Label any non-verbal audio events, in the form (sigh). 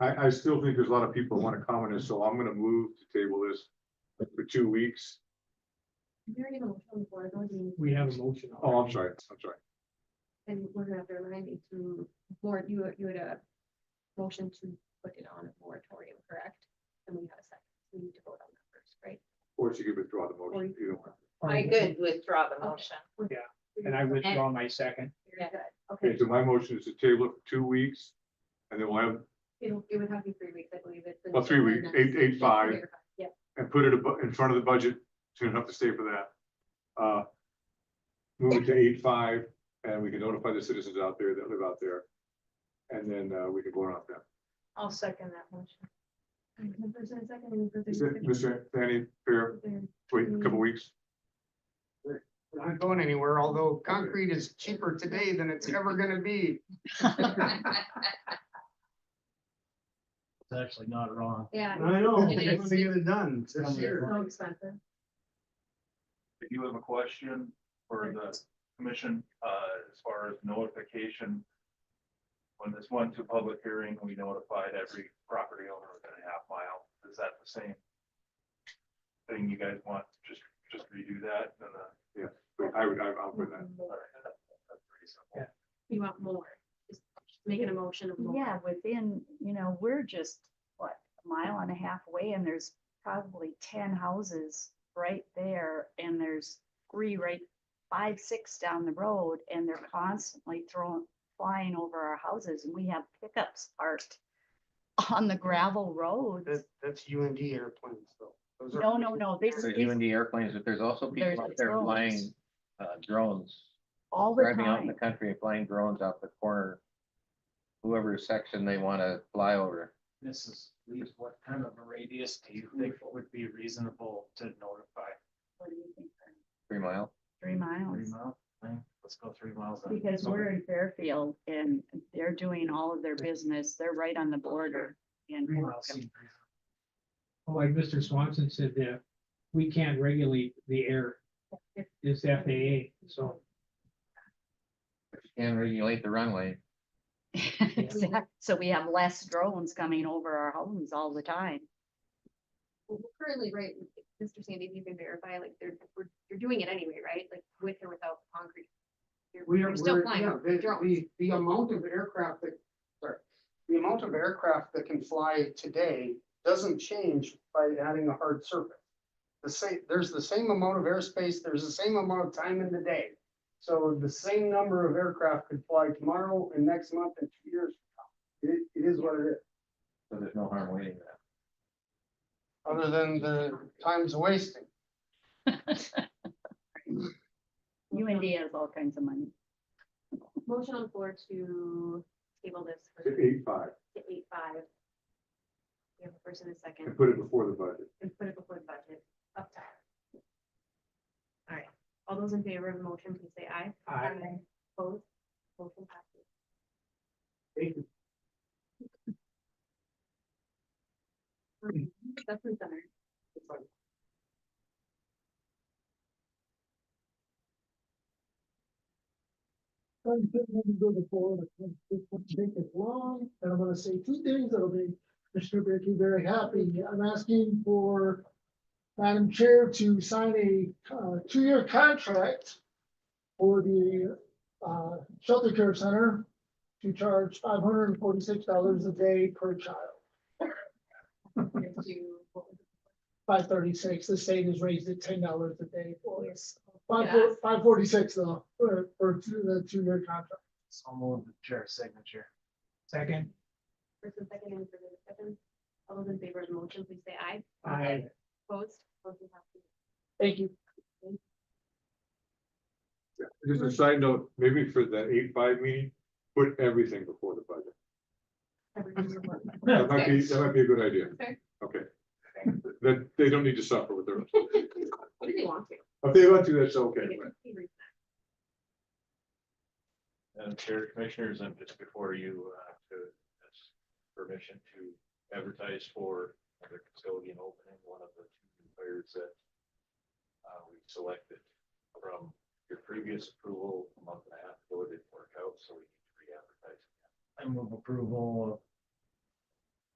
I, I still think there's a lot of people who want to comment, and so I'm gonna move to table this for two weeks. There you go, from the board, don't you? We have a motion. Oh, I'm sorry, I'm sorry. And we're gonna have to remind you to, board, you, you had a motion to put it on a moratorium, correct? And we have a second, we need to vote on that first, right? Or she could withdraw the motion if you don't want. I could withdraw the motion. And I withdraw my second. Very good, Okay, okay, so my motion is to table it for two weeks, and then we'll have, it'll, it would have to be three weeks, I believe it's. Well, Oh, three weeks, eight- eight, five. Yeah, and put it abo- in front of the budget, soon enough to stay for that. Uh, Move it to eight five, and we can notify the citizens out there that live out there. And then uh, we can vote on that. I'll second that motion. And first and second, any further Is that, discussion? Mr. Fanny, fair, wait a couple weeks? We're Not going anywhere, although concrete is cheaper today than it's ever gonna be. It's actually not wrong. Yeah, I know. It is. It's gonna get it done It's this year. so expensive. If you have a question for the commission, uh, as far as notification. When this went to public hearing, we notified every property owner within a half mile. Is that the same? Thing you guys want, just, just redo that and then. Wait, I would, I- I'll put that. all right, that's pretty simple. You want more, just make an emotion of more. Yeah, within, you know, we're just, what, a mile and a half away and there's probably ten houses right there and there's three right, five, six down the road and they're constantly throwing, flying over our houses and we have pickups parked on the gravel roads. That, that's UND airplanes though. Those are- No, no, no, this There's is even the airplanes, but there's also There's people out there drones. flying uh, drones, all the driving out in the time. country and flying drones out the corner. Whoever section they want to fly over. This is, leaves what kind of a radius do you think would be reasonable to notify? What do you think, Ernie? Three mile, Three Mm, Three miles, miles? Let's go three miles. then. because we're in Fairfield and they're doing all of their business. They're right on the border. And Three miles (laughs) seems reasonable. Like Mr. Swanson said, that we can't regulate the air. It's FAA, so. and regulate the runway. Exact- So we have less drones coming over our homes all the time. (laughs) Well, we're Currently, right, Mr. Sandy, if you can verify, like, they're, we're, you're doing it anyway, right? Like, with or without concrete? You're- We are, You're still we're, flying. yeah, the, drones. the, the amount of aircraft that, sorry, the amount of aircraft that can fly today doesn't change by adding a hard surface. The same, there's the same amount of airspace, there's the same amount of time in the day. So the same number of aircraft could fly tomorrow and next month and two years. from now. It, it is what it is, So there's no harm waiting that. other than the time's wasting. Mm. UND has all kinds of money. Motion on floor to table this for To eight five, to eight five. We have a first and a second, and put it before the budget. and put it before the budget, up top. All right, all those in favor of the motion, please say aye. I, Opposed? Motion passes. Thank you. That's in center. It's like, I'm gonna go to Florida, this won't take as long, and I'm gonna say two things that'll make Commissioner Brackey very happy. I'm asking for Madam Chair to sign a, uh, two-year contract for the, uh, shelter care center to charge five hundred and forty-six dollars a day per child. To- what was it? Five thirty-six, the state has raised it ten dollars a day for us. Five, Yes. five forty-six though, for, for two- the two-year contract. So I'll move the chair signature. second, First and second, any further discussion? All those in favor of the motion, please say aye. I, Opposed? Motion passes. Thank you. Just a side note, maybe for that eight five meeting, put everything before the budget. Everything's reported. That might be, that might be a good idea. Okay. Okay. That, they don't need to suffer with their, What do they want to? if they want to, that's okay. They but- get to see And Uh, Chair Commissioners, I'm just before you, uh, to, ask permission to advertise for the custodian opening, one of the two players that uh, we selected from your previous approval a month and a half ago, it didn't work out, so we need to re-advertise. I move approval